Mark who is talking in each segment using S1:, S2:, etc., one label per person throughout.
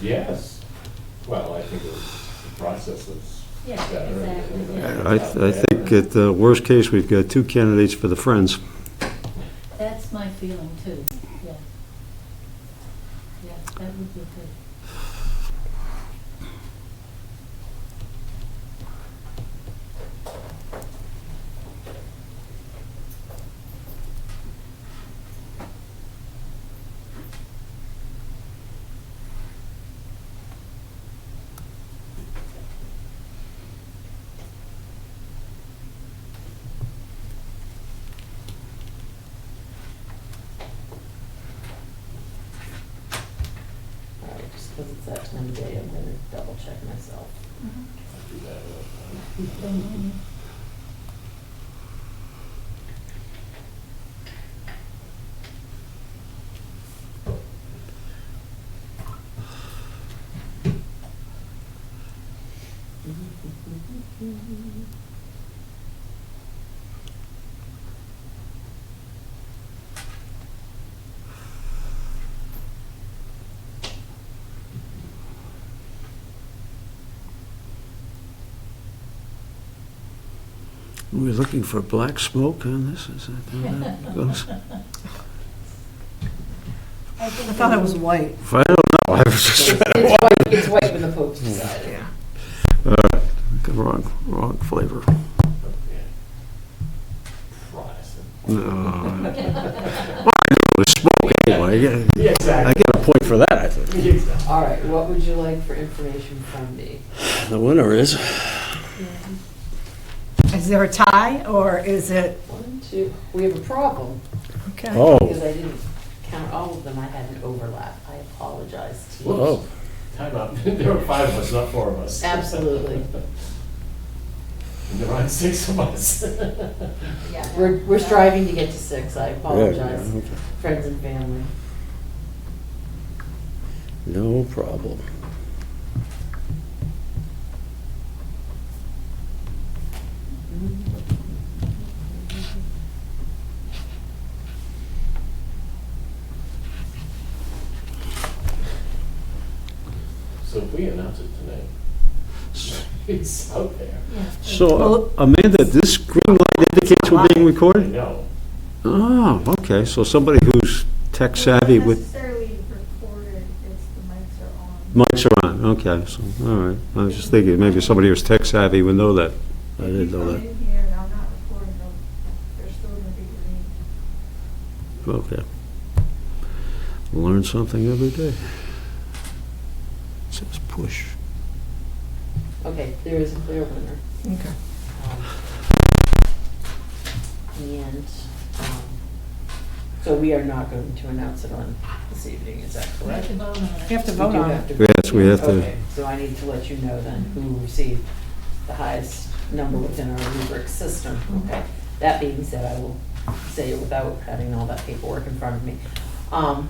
S1: Yes. Well, I think the process is
S2: Yeah,
S1: better.
S2: exactly, yeah.
S3: I, I think at the worst case, we've got two candidates for the Friends.
S2: That's my feeling too, yeah. Yeah, that would be good.
S4: All right, just because it's that time of day, I'm gonna double check myself. Mm-hmm.
S2: Mhm.
S3: We're looking for black smoke on this, is that how that goes?
S5: I thought it was white.
S3: I don't know, I was just,
S4: It's it's white, it's white when the Pope's decided.
S5: Yeah.
S3: Uh, wrong, wrong flavor.
S1: Protestant.
S3: uh, No. It was smoke anyway, I get-
S1: Yeah,
S3: I
S1: exactly.
S3: get a point for that, I think.
S1: Exactly.
S4: All right, what would you like for information from me?
S3: The winner is,
S5: Is there a tie, or is it,
S4: One, two, we have a problem,
S5: okay,
S3: oh,
S4: because I didn't count all of them, I had an overlap, I apologize to you.
S3: oh,
S1: Time out. There were five of us, not four of us.
S4: Absolutely.
S1: And there aren't six of us.
S4: We're, we're striving to get to six, I
S3: yeah, yeah,
S4: apologize,
S3: okay.
S4: friends and family.
S3: no problem.
S1: So if we announce it tonight, it's out there.
S2: Yeah.
S3: So uh, Amanda, this green light indicates we're being
S1: I
S3: recorded?
S1: know.
S3: Oh, okay, so somebody who's tech savvy
S6: Not
S3: with
S6: Necessarily recorded, it's the mics are
S3: Mics
S6: on.
S3: are on, okay, so, all right. I was just thinking, maybe somebody who's tech savvy would know that. I didn't know
S6: If
S3: that.
S6: you come in here and I'm not recording, they'll- they're still gonna be green.
S3: Okay. Learn something every day. Says push.
S4: Okay, there is a clear winner.
S5: okay.
S4: Um, And, um, so we are not going to announce it on this evening, is that
S2: We have
S4: correct?
S2: to vote on it.
S5: You have to
S4: We
S5: vote
S4: do
S5: on
S4: have
S5: it.
S4: to-
S3: Yes, we have to,
S4: Okay, so I need to let you know then who received the highest number within our rubric system, okay? That being said, I will say it without having all that paperwork in front of me. Um,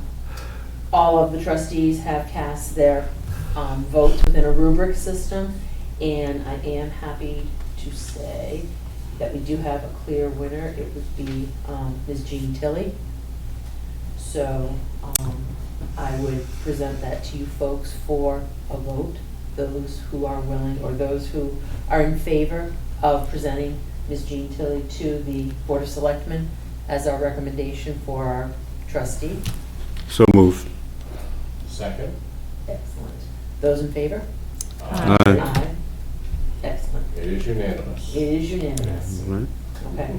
S4: All of the trustees have cast their um, votes within a rubric system, and I am happy to say that we do have a clear winner. It would be um, Ms. Jean Tilly. So um, I would present that to you folks for a vote, those who are willing, or those who are in favor of presenting Ms. Jean Tilly to the Board of Selectmen as our recommendation for our trustee.
S3: so move.
S1: Second?
S4: Excellent. Those in favor?
S1: Aye.
S3: Aye.
S4: Excellent.
S1: It is unanimous.
S4: It is unanimous.
S3: Right,
S4: Okay,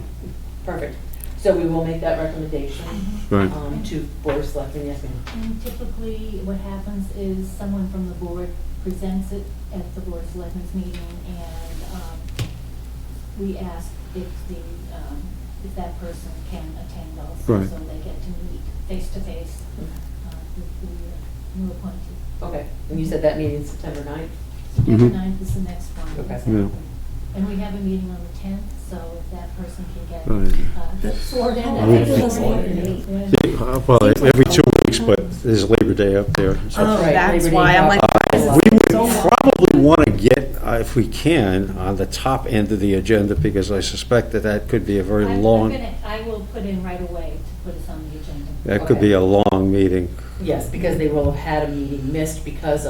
S4: perfect. So we will make that recommendation
S3: right.
S4: um, to Board of Selectmen, yes ma'am?
S2: And typically, what happens is someone from the board presents it at the board of selectmen's meeting, and um, we ask if the, um, if that person can attend also.
S3: Right.
S2: So they get to meet face-to-face
S4: Mm-hmm.
S2: uh, with the uh, new appointee.
S4: Okay, and you said that meeting's September 9th?
S2: September
S3: Mhm.
S2: ninth is the next one.
S4: Okay.
S2: exactly.
S3: Yeah.
S2: And we have a meeting on the tenth, so if that person can get,
S3: Right.
S2: uh, sworn in.
S1: Oh,
S2: I think
S1: yeah.
S2: it's gonna be-
S3: Yeah, uh, Well, every two weeks, but there's Labor Day up there. so-
S5: Oh,
S4: Right,
S5: that's
S4: Labor
S5: why,
S4: Day.
S5: I'm like, why is
S4: Uh,
S5: it
S3: We would
S5: so long?
S3: probably want to get, uh, if we can, on the top end of the agenda, because I suspect that that could be a very
S2: I'm- I'm
S3: long,
S2: gonna- I will put in right away to put us on the agenda.
S3: that could be a long meeting.
S4: Yes, because they will have had a meeting missed because of.